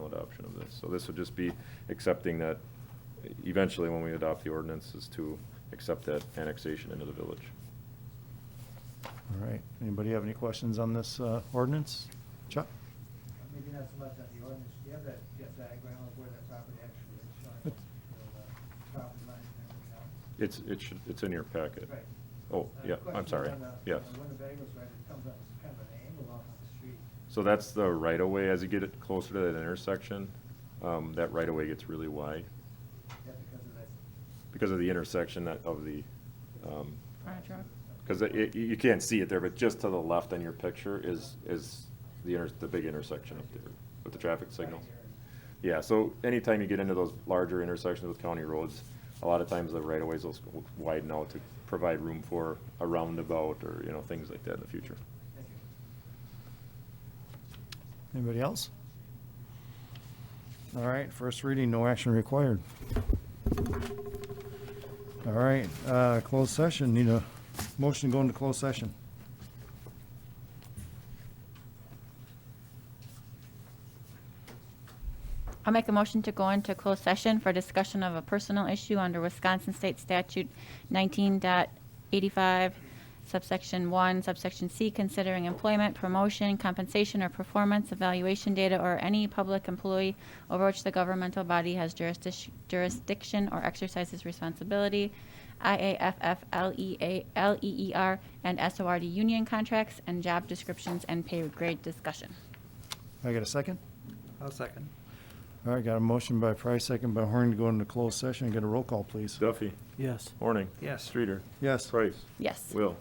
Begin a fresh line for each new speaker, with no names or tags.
adoption of this. So this would just be accepting that, eventually, when we adopt the ordinance, is to accept that annexation into the village.
All right, anybody have any questions on this uh, ordinance? Chuck?
Maybe not so much on the ordinance, do you have that that diagram of where that property actually is showing?
But-
Where the uh, Property lines and everything else.
It's, it should, it's in your packet.
Right.
Oh,
Uh,
yeah,
question
I'm sorry,
on Uh, the- on
yes.
the Winnebago's right, it comes up as kind of an angle off of the street.
So that's the right-of-way, as you get it closer to that intersection, um, that right-of-way gets really wide
Is that because of that?
because of the intersection that, of the, um,
Fire truck.
because it, you, you can't see it there, but just to the left on your picture is, is the inter, the big intersection up there with the traffic signals. Yeah, so anytime you get into those larger intersections with county roads, a lot of times the right-of-ways will s- widen out to provide room for a roundabout or, you know, things like that in the future.
Thank you.
Anybody else? All right, first reading, no action required. All right, uh, closed session, need a motion to go into closed session.
I'll make a motion to go into closed session for discussion of a personal issue under Wisconsin State Statute 19.85, subsection one, subsection C, considering employment, promotion, compensation, or performance evaluation data or any public employee over which the governmental body has jurisdic- jurisdiction or exercises responsibility, IAFF, LEA, LEER, E and SORD union contracts, and job descriptions and pay grade discussion.
I got a second?
I'll second.
All right, got a motion by Price, second by Horn to go into closed session. Get a roll call, please.
Duffy,
Yes.
Horning.
Yes.
Streeter.
Yes.
Price.
Yes.
Will.